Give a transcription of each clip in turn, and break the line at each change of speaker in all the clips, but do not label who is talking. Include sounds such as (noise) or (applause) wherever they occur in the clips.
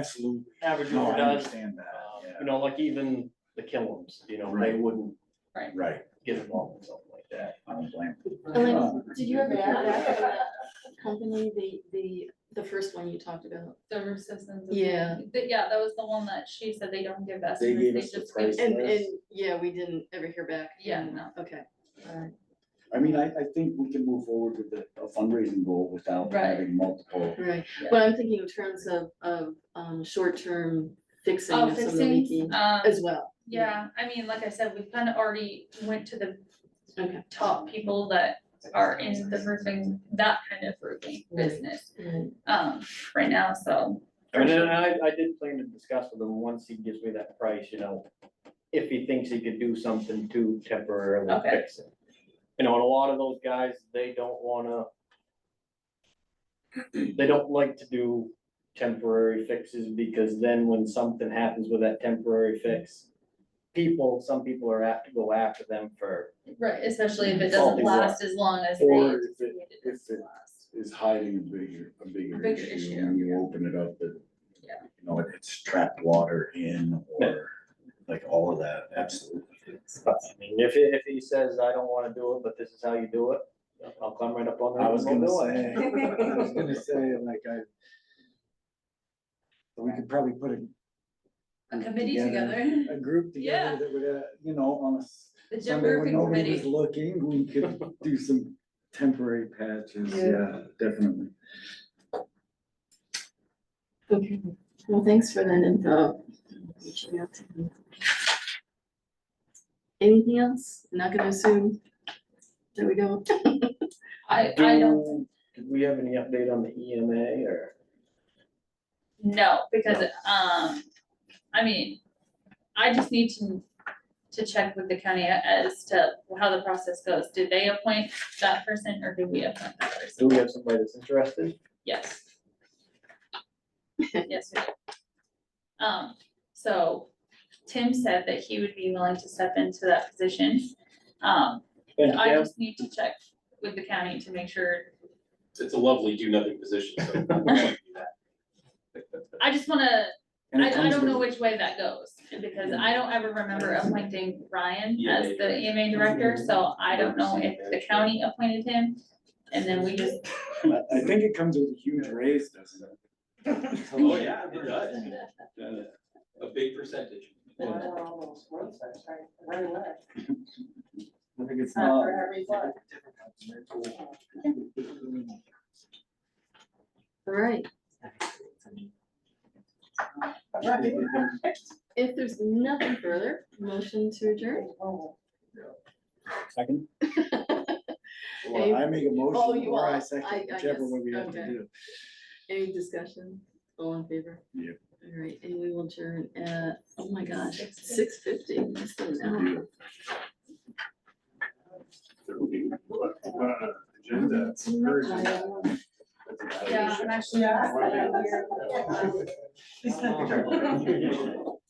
Absolutely.
average
No, I
overdose,
understand that,
uh, you
yeah,
know, like even the Killam's, you know, they
Right.
wouldn't
right,
get involved in something like that.
I don't blame. Um,
Elaine, did you ever add that to that company, the, the, the first one you talked about?
The roof systems. is-
Yeah.
But yeah, that was the one that she said they don't give
They gave us
estimates,
the
they just. give-
price
And, and,
list.
yeah, we didn't ever hear back.
Yeah, no.
Okay, alright.
I mean, I, I think we can move forward with the a fundraising goal without
Right.
having multiple.
Right,
Yeah.
but I'm thinking in terms of, of, um, short-term fixing
Oh,
of some of the
fixing,
leaking
um,
as well.
yeah, I mean, like I said, we kind of already went to the
Okay.
top people that are in the roofing, that kind of roofing
Right.
business,
Right.
um, right now, so.
I mean, and I, I did plan to discuss with him, once he gives me that price, you know, if he thinks he could do something to temporarily
Okay.
fix it. You know, and a lot of those guys, they don't wanna. They don't like to do temporary fixes because then when something happens with that temporary fix. People, some people are apt to go after them for,
Right, especially if it
Faulty
doesn't
wall.
last as long as they.
Or if it-
anticipated
if
it
it-
to last.
Is hiding a bigger, a bigger
Bigger
issue
issue.
when you open it up that.
Yeah.
You know, it's trapped water in or like all of that, absolutely.
I mean, if, he- if he says, I don't wanna do it, but this is how you do it, I'll climb right up on that.
I was
and
gonna
we'll do
say,
it.
(laughs) I was (laughs) gonna say, like, I. so We could probably put a,
A committee
together.
together, (laughs)
a group
Yeah.
together that would, uh, you know, on a s-
the gym
Sunday when
roofing
nobody was
committee,
looking, we
(laughs)
could do some temporary patches,
Yeah.
yeah, definitely.
Okay, well, thanks for that info. Reaching out to me. Anything else? Not gonna assume. There we go.
I, I don't.
Do- Did we have any update on the EMA or?
No, because, um, I mean, I just need to, to check with the county as to how the process goes. Did they appoint that person or did we appoint that person?
Do we have somebody that's interested?
Yes. Yes, we did. Um, so Tim said that he would be willing to step into that position. Um,
Thank
I
you.
just need to check with the county to make sure
It's a lovely do nothing position, so. I
I just wanna,
And it
I, I
comes
don't know
with-
which way that goes, because I don't ever remember appointing Ryan as
Yeah. Mm-hmm.
the EMA director, so I don't know if the county appointed him. And then we just,
I, I think it comes with a huge raise, doesn't
(laughs)
it?
Oh, yeah, it does. A big percentage.
I think it's
Uh,
not.
Alright, if there's nothing further, motion to adjourn?
Second.
Well, I make a
Oh,
motion
you
or I
are. I-
second,
I
whichever
guess,
one we have to
okay.
do.
Any discussion? All in favor?
Yep.
Alright, and we will adjourn at, oh my gosh, six
6:50.
fifty, less than an hour.
Agenda.
yeah, I'm actually.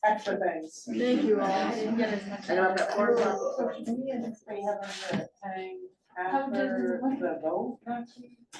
Extra things.
Thank you all.
I didn't get as much.
I know I've got more. We have a,
How does-
after the vote,